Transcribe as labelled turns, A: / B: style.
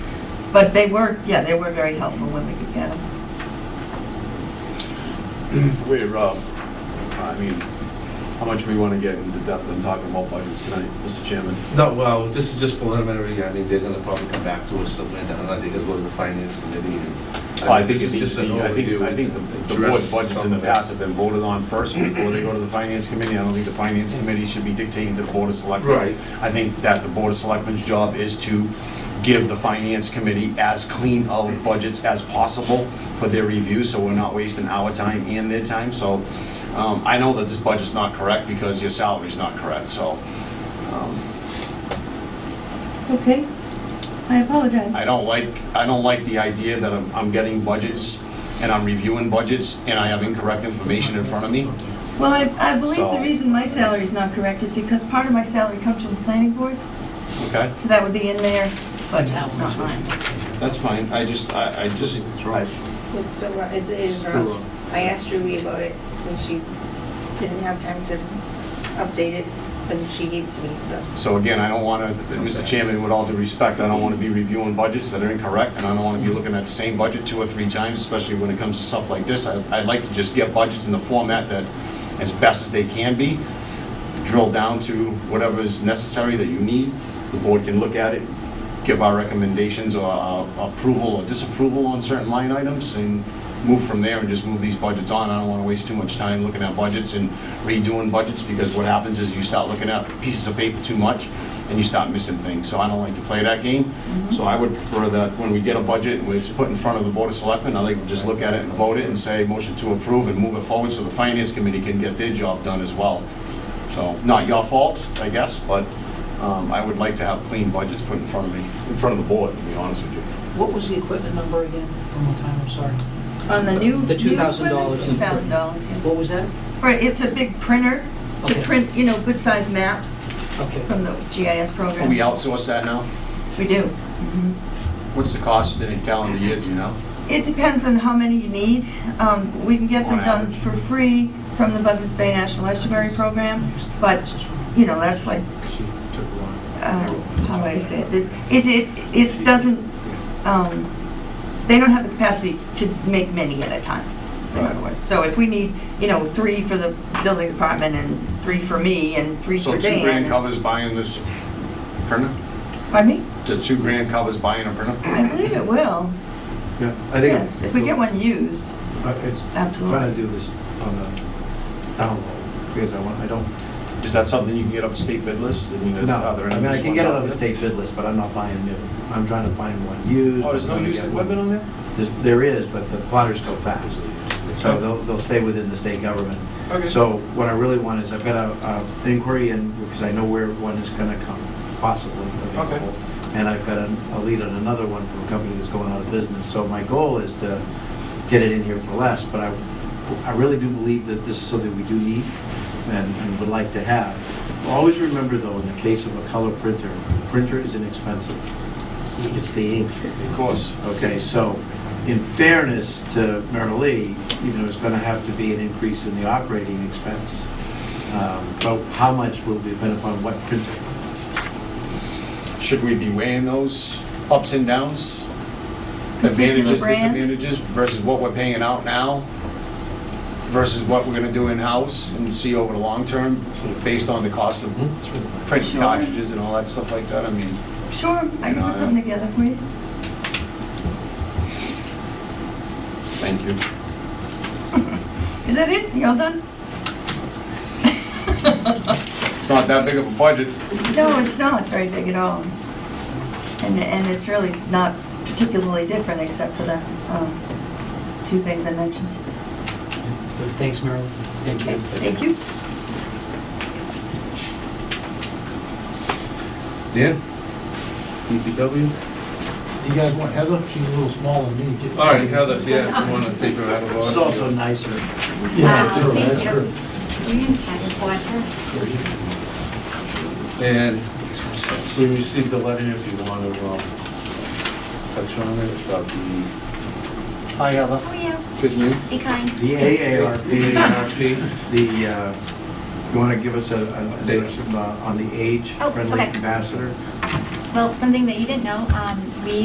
A: But they were, yeah, they were very helpful when we could get them.
B: We're, uh, I mean, how much we want to get into depth in talking about budgets tonight, Mr. Chairman?
C: No, well, this is just preliminary, I mean, they're gonna probably come back to us somewhere down, I think it'll go to the finance committee and.
B: I think
C: this
B: it
C: is
B: needs
C: just
B: to
C: an
B: be, I think,
C: overview,
B: I think the the board
C: address
B: budgets in the
C: some-
B: past have been voted on first before they go to the finance committee. I don't think the finance committee should be dictating to the board of selectmen.
C: Right.
B: I think that the board of selectmen's job is to give the finance committee as clean of budgets as possible for their review, so we're not wasting our time and their time. So um, I know that this budget's not correct because your salary's not correct, so um,
A: Okay, I apologize.
B: I don't like, I don't like the idea that I'm, I'm getting budgets and I'm reviewing budgets and I have incorrect information in front of me.
A: Well, I, I believe the
B: So-
A: reason my salary is not correct is because part of my salary comes from the planning board,
B: Okay,
A: so that would be in their budget, it's not mine.
B: that's fine. I just, I, I just, I,
D: It's still, wrong. it's, it is
C: It's
D: wrong.
C: wrong.
D: I asked Julie about it, and she didn't have time to update it, but she gave it to me, so.
B: so again, I don't wanna, Mr. Chairman, with all due respect, I don't wanna be reviewing budgets that are incorrect and I don't wanna be looking at the same budget two or three times, especially when it comes to stuff like this. I, I'd like to just get budgets in the format that, as best as they can be, drill down to whatever is necessary that you need. The board can look at it, give our recommendations or our approval or disapproval on certain line items and move from there and just move these budgets on. I don't want to waste too much time looking at budgets and redoing budgets because what happens is you start looking at pieces of paper too much and you start missing things. So I don't like to play that game. So I would prefer that when we get a budget and it's put in front of the Board of Selectmen, I like to just look at it and vote it and say, motion to approve and move it forward so the Finance Committee can get their job done as well. So, not your fault, I guess, but um, I would like to have clean budgets put in front of me, in front of the board, to be honest with you.
E: What was the equipment number again? One more time, I'm sorry.
A: On the new.
E: The $2,000
A: Two thousand dollars, yeah.
E: What was that?
A: For, it's a big printer to
E: Okay.
A: print, you know, good-sized maps
E: Okay.
A: from the GIS program.
B: Can we outsource that now?
A: We do.
B: What's the cost in a calendar year, do you know?
A: It depends on how many you need. Um, We can get them
B: On
A: done
B: average.
A: for free from the Buzzards Bay National Estuary Program, but, you know, that's like,
C: She took one.
A: uh, how do I say it? This, it, it, it doesn't, um, they don't have the capacity to make many at a time, in other
B: Right.
A: words. So if we need, you know, three for the building department and three for me and three
B: So
A: for
B: two grand
A: Dan.
B: covers buying this printer?
A: Pardon me?
B: The two grand covers buying a printer?
A: I believe it will,
F: Yeah, I think.
A: yes, if we get one used,
F: I- It's trying
A: absolutely.
F: to do this on a download, because I want, I don't.
B: Is that something you can get off the state bid list? I mean, is- are there
F: I mean, I
B: any
F: can get it on
B: ones
F: the
B: out
F: state bid list, but I'm not buying new. I'm trying to find one used.
B: there? Oh, there's no
F: I'm gonna
B: used
F: get
B: equipment
F: one-
B: on there?
F: There's- There is, but the plotters go fast. So they'll, they'll stay within the state government.
B: Okay.
F: So what I really want is, I've got a, a an inquiry in, because I know where one is gonna come, possibly.
B: Okay.
F: available. And I've got an- a lead on another one from a company that's going out of business. So my goal is to get it in here for less, but I, I really do believe that this is something we do need and, and would like to have. Always remember though, in the case of a color printer, the printer is inexpensive. It's the ink.
B: Of course.
F: Okay, so in fairness to Myrtle Lee, you know, it's going to have to be an increase in the operating expense. Um, But how much will depend upon what printer.
B: Should we be weighing those ups and downs?
A: Particular
B: Advantages,
A: brands?
B: disadvantages versus what we're paying out now versus what we're gonna do in-house and see over the long term, sort of based on the cost of print
A: Sure.
B: cartridges and all that stuff like that, I mean.
A: Sure, I can
B: Yeah.
A: put something together for you.
B: Thank you.
A: Is that it? You all done?
B: It's not that big of a budget.
A: No, it's not very big at all. And, and it's really not particularly different except for the um, two things I mentioned.
E: Thanks, Marilyn. Thank
A: Okay,
E: you.
A: thank you.
C: Dan? E DPW?
G: You guys want Heather? She's a little smaller than me.
C: All right, Heather, yeah, you wanna take her out of order?
F: It's also nicer.
G: Yeah,
H: Uh,
G: sure,
H: thank
G: that's
H: you.
G: true.
C: And we received a letter, if you want to um, touch on it, about the
B: Hi, Heather.
H: Oh, yeah,
C: Good news.
H: be kind.
F: The AARP,
C: AARP.
F: the, uh, you want to give us a, a-
C: Date.
F: some, uh, on the age
H: Oh,
F: friendly
H: okay.
F: ambassador?
H: Well, something that you didn't know, um, we